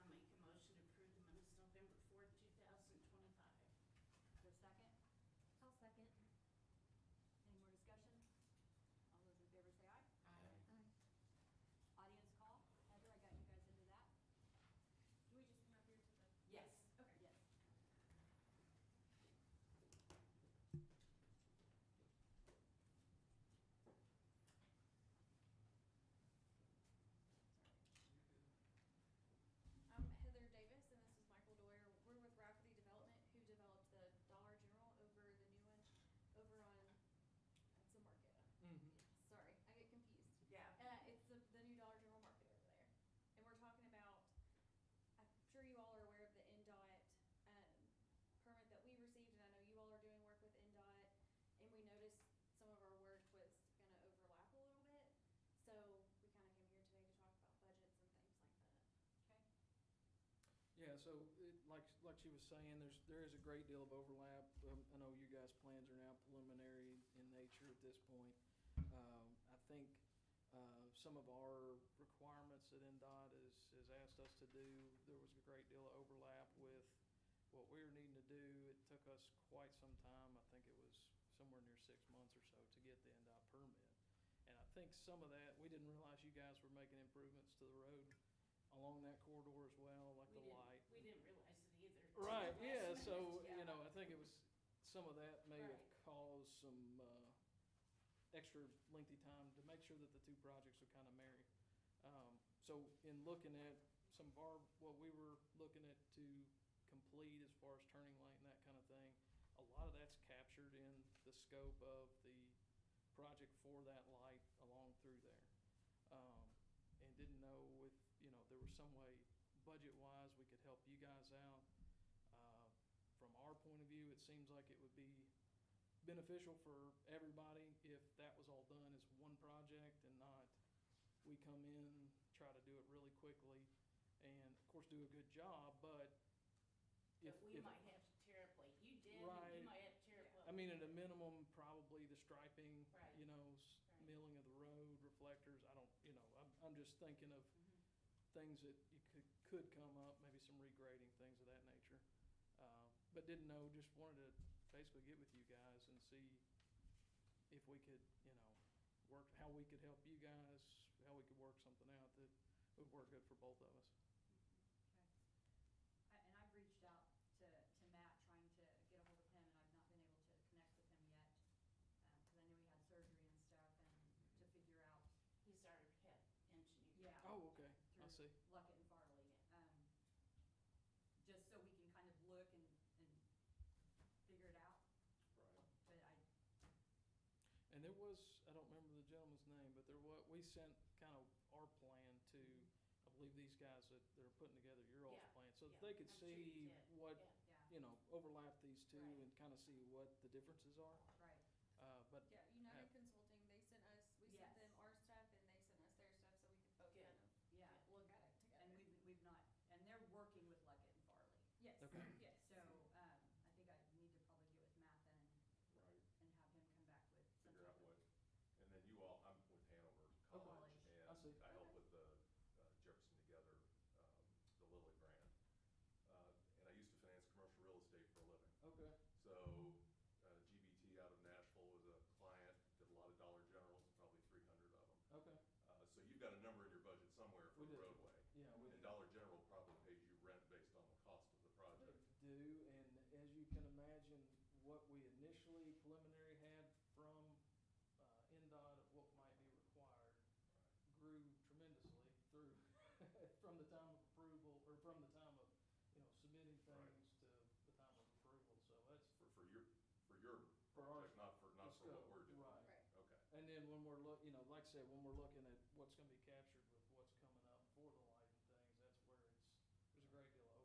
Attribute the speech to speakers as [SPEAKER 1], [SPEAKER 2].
[SPEAKER 1] Mm-hmm.
[SPEAKER 2] Uh, um,
[SPEAKER 1] so it, like, like she was saying, there's, there is a great deal of overlap. Um, I know you guys' plans are now preliminary in nature at this point. Um, I think, uh, some of our requirements that NDOT has, has asked us to do, there was a great deal of overlap with what we were needing to do. It took us quite some time. I think it was somewhere near six months or so to get the NDOT permit. And I think some of that, we didn't realize you guys were making improvements to the road along that corridor as well, like
[SPEAKER 3] We
[SPEAKER 1] the
[SPEAKER 3] didn't-
[SPEAKER 1] light.
[SPEAKER 3] We didn't realize it either.
[SPEAKER 1] Right,
[SPEAKER 3] Last
[SPEAKER 1] yeah,
[SPEAKER 3] minute,
[SPEAKER 1] so,
[SPEAKER 3] yeah.
[SPEAKER 1] you know, I think it was, some of that may have
[SPEAKER 3] Right.
[SPEAKER 1] caused some, uh, extra lengthy time to make sure that the two projects would kind of marry. Um, so in looking at some of our, what we were looking at to complete as far as turning lane and that kind of thing, a lot of that's captured in the scope of the project for that light along through there. Um, and didn't know if, you know, there was some way, budget-wise, we could help you guys out. Uh, From our point of view, it seems like it would be beneficial for everybody if that was all done as one project and not we come in, try to do it really quickly, and of course, do a good job, but if,
[SPEAKER 3] But we
[SPEAKER 1] if,
[SPEAKER 3] might have to tear up what you did, and
[SPEAKER 1] Right.
[SPEAKER 3] you might have to tear up what.
[SPEAKER 1] I mean, at a minimum, probably the striping,
[SPEAKER 3] Right.
[SPEAKER 1] you know, s-
[SPEAKER 3] Right.
[SPEAKER 1] milling of the road, reflectors, I don't, you know, I'm, I'm just thinking of
[SPEAKER 3] Mhm.
[SPEAKER 1] things that you could, could come up, maybe some regrading, things of that nature. Uh, But didn't know, just wanted to basically get with you guys and see if we could, you know, work, how we could help you guys, how we could work something out that would work good for both of us.
[SPEAKER 4] Okay. I- And I've reached out to, to Matt, trying to get a hold of him, and I've not been able to connect with him yet, um, because I knew he had surgery and stuff, and to figure out,
[SPEAKER 3] He's our head engineer.
[SPEAKER 4] yeah.
[SPEAKER 1] Oh, okay, I
[SPEAKER 4] through
[SPEAKER 1] see.
[SPEAKER 4] Luckett and Farley, um, just so we can kind of look and, and figure it out,
[SPEAKER 5] Right.
[SPEAKER 4] but I,
[SPEAKER 1] And there was, I don't remember the gentleman's name, but there was, we sent kind of our plan to, I believe these guys that, that are putting together your all's
[SPEAKER 3] Yeah,
[SPEAKER 1] plan, so that
[SPEAKER 3] yeah,
[SPEAKER 1] they could
[SPEAKER 3] I'm sure you
[SPEAKER 1] see
[SPEAKER 3] did,
[SPEAKER 1] what,
[SPEAKER 3] yeah.
[SPEAKER 4] yeah,
[SPEAKER 1] you know, overlap these two
[SPEAKER 4] Right.
[SPEAKER 1] and kind of see what the differences are.
[SPEAKER 4] right,
[SPEAKER 1] Uh, but,
[SPEAKER 2] Yeah, United Consulting, they sent us, we sent them
[SPEAKER 4] Yes.
[SPEAKER 2] our stuff and they sent us their stuff so we could
[SPEAKER 3] Good.
[SPEAKER 2] both kind of
[SPEAKER 4] yeah.
[SPEAKER 2] look at it together.
[SPEAKER 4] And we've, we've not, and they're working with Luckett and Farley,
[SPEAKER 2] Yes,
[SPEAKER 1] Okay.
[SPEAKER 2] yes.
[SPEAKER 4] so, um, I think I need to probably get with Matt then and and
[SPEAKER 5] Right,
[SPEAKER 4] have him come back with some type
[SPEAKER 5] figure out
[SPEAKER 4] of.
[SPEAKER 5] what, and then you all, I'm with Hanover
[SPEAKER 4] College.
[SPEAKER 5] College,
[SPEAKER 1] I see.
[SPEAKER 5] and I help with the uh, Jefferson Together, um, the Lilly grant. Uh, And I used to finance commercial real estate for a living.
[SPEAKER 1] okay,
[SPEAKER 5] So uh, GBT out of Nashville was a client, did a lot of Dollar Generals, probably three hundred of them.
[SPEAKER 1] okay,
[SPEAKER 5] Uh, So you've got a number in your budget somewhere for
[SPEAKER 1] We
[SPEAKER 5] the
[SPEAKER 1] do.
[SPEAKER 5] roadway.
[SPEAKER 1] yeah, we
[SPEAKER 5] And Dollar General probably pays you rent based on the cost of the project.
[SPEAKER 1] do, and as you can imagine, what we initially preliminary had from, uh, NDOT of what might be required, grew tremendously through, from the time of approval, or from the time of, you know, submitting
[SPEAKER 5] Right.
[SPEAKER 1] things to the time of approval, so that's
[SPEAKER 5] For, for your, for your
[SPEAKER 1] for our.
[SPEAKER 5] project, not for, not for what
[SPEAKER 1] scope,
[SPEAKER 5] we're doing.
[SPEAKER 1] Right,
[SPEAKER 2] Right.
[SPEAKER 5] Okay.
[SPEAKER 1] and then when we're look, you know, like I said, when we're looking at what's gonna be captured